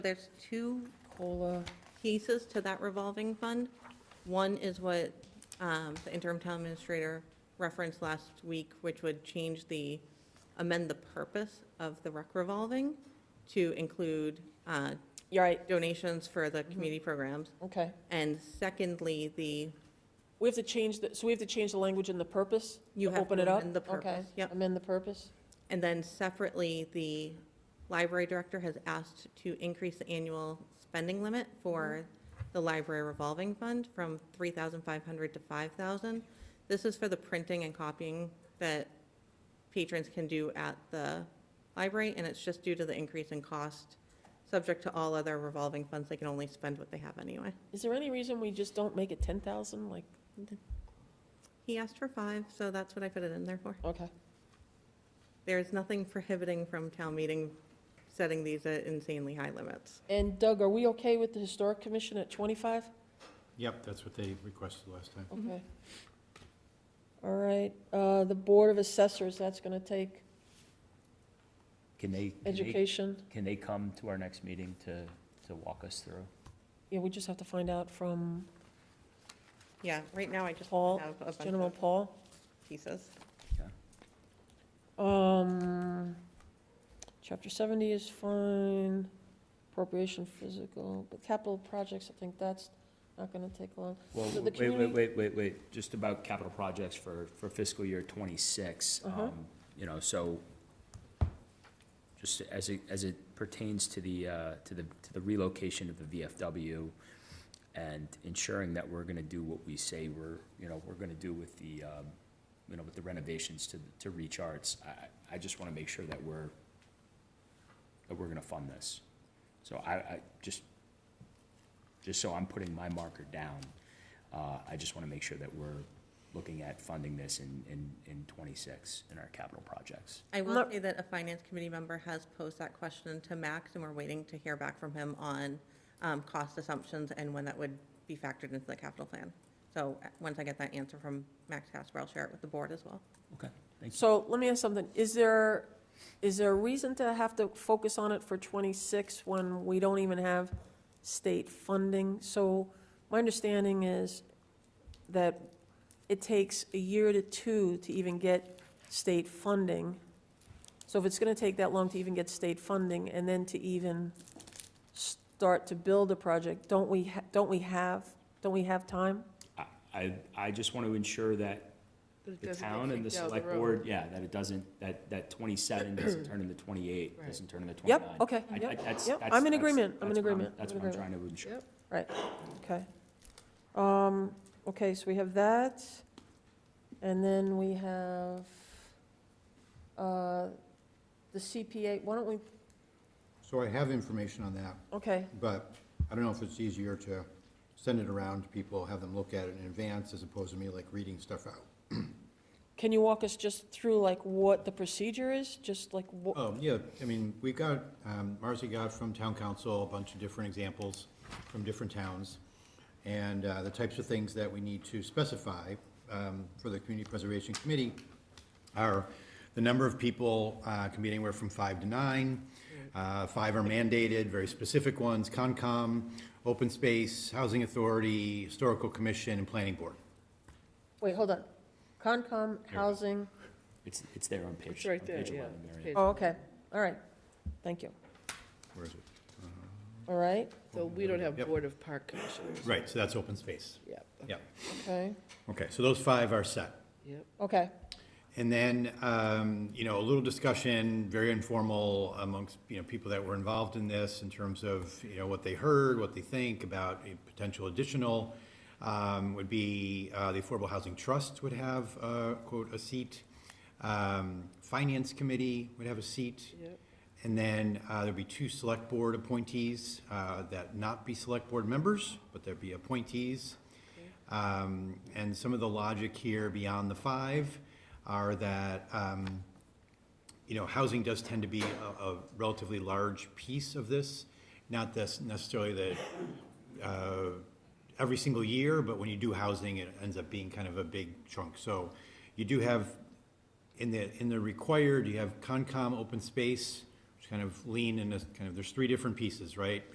There's two COLA pieces to that revolving fund. One is what um, the interim town administrator referenced last week, which would change the, amend the purpose of the rec revolving to include uh, You're right, donations for the community programs. okay. And secondly, the, We have to change, the so we have to change the language in the purpose? you to have Open it to up? amend the Okay. purpose. Yep. Amend the purpose? And then separately, the library director has asked to increase the annual spending limit for the library revolving fund from 3,500 to 5,000. This is for the printing and copying that patrons can do at the library, and it's just due to the increase in cost. Subject to all other revolving funds, they can only spend what they have anyway. Is there any reason we just don't make it 10,000, like, He asked for five, so that's what I put it in there for. okay, There's nothing prohibiting from town meeting setting these at insanely high limits. and Doug, are we okay with the Historic Commission at 25? Yep, that's what they requested last time. Okay. All right, uh, the Board of Assessors, that's gonna take Can they, can they, education. can they come to our next meeting to, to walk us through? Yeah, we just have to find out from Yeah, right now I just Paul, have a bunch General of Paul. pieces. Um, chapter seventy is fine, appropriation physical, but capital projects, I think that's not gonna take long. Well, So the wait, wait, community- wait, wait, wait, just about capital projects for, for fiscal year twenty-six. Uh-huh. um, You know, so, just as it, as it pertains to the, uh, to the, to the relocation of the VFW and ensuring that we're gonna do what we say we're, you know, we're gonna do with the, um, you know, with the renovations to, to Reach Arts, I- I, I just wanna make sure that we're, that we're gonna fund this. So I, I, just, just so I'm putting my marker down, uh, I just want to make sure that we're looking at funding this in, in, in twenty-six in our capital projects. I will Look- say that a finance committee member has posed that question to Max, and we're waiting to hear back from him on um, cost assumptions and when that would be factored into the capital plan. So uh, once I get that answer from Max Casper, I'll share it with the board as well. Okay, thank you. So let me ask something, is there, is there a reason to have to focus on it for twenty-six when we don't even have state funding? So my understanding is that it takes a year to two to even get state funding. So if it's gonna take that long to even get state funding and then to even start to build a project, don't we, ha- don't we have, don't we have time? I- I, I just want to ensure that the town and the select board, yeah, that it doesn't, that, that twenty-seven doesn't turn into twenty-eight, doesn't turn into twenty-nine. Yep, okay, I- I- yep, that's- yep, that's- I'm in that's- agreement, I'm in that's what agreement, That's I'm in what I'm agreement. trying to ensure. Okay. Um, okay, so we have that, and then we have, uh, the CPA, why don't we, So I have information on that, okay, but I don't know if it's easier to send it around to people, have them look at it in advance as opposed to me like reading stuff out. can you walk us just through like what the procedure is, just like what? Oh, yeah, I mean, we got, um, Marcy got from town council a bunch of different examples from different towns and uh, the types of things that we need to specify um, for the Community Preservation Committee are the number of people uh, can be anywhere from five to nine. Uh, Five are mandated, very specific ones, Concom, Open Space, Housing Authority, Historical Commission, and Planning Board. Wait, hold on, Concom, housing, It's, it's there on page, It's on right there, page yeah. eleven, Mary. It's page- oh, okay, all right, thank you, Where is it? all right, So we don't have Yep. Board of Park Commissioners. Right, so that's Open Space. Yep, Yeah, okay, okay, so those five are set. yep. okay, And then, um, you know, a little discussion, very informal amongst, you know, people that were involved in this in terms of, you know, what they heard, what they think about a potential additional, um, would be, uh, the Affordable Housing Trust would have, uh, quote, a seat. Um, Finance Committee would have a seat. Yep. And then, uh, there'd be two select board appointees, uh, that not be select board members, but there'd be appointees. Um, And some of the logic here beyond the five are that, um, you know, housing does tend to be a a relatively large piece of this. Not this necessarily that uh, every single year, but when you do housing, it ends up being kind of a big chunk. So you do have, in the, in the required, you have Concom, open space, which kind of lean in this, kind of, there's three different pieces, right?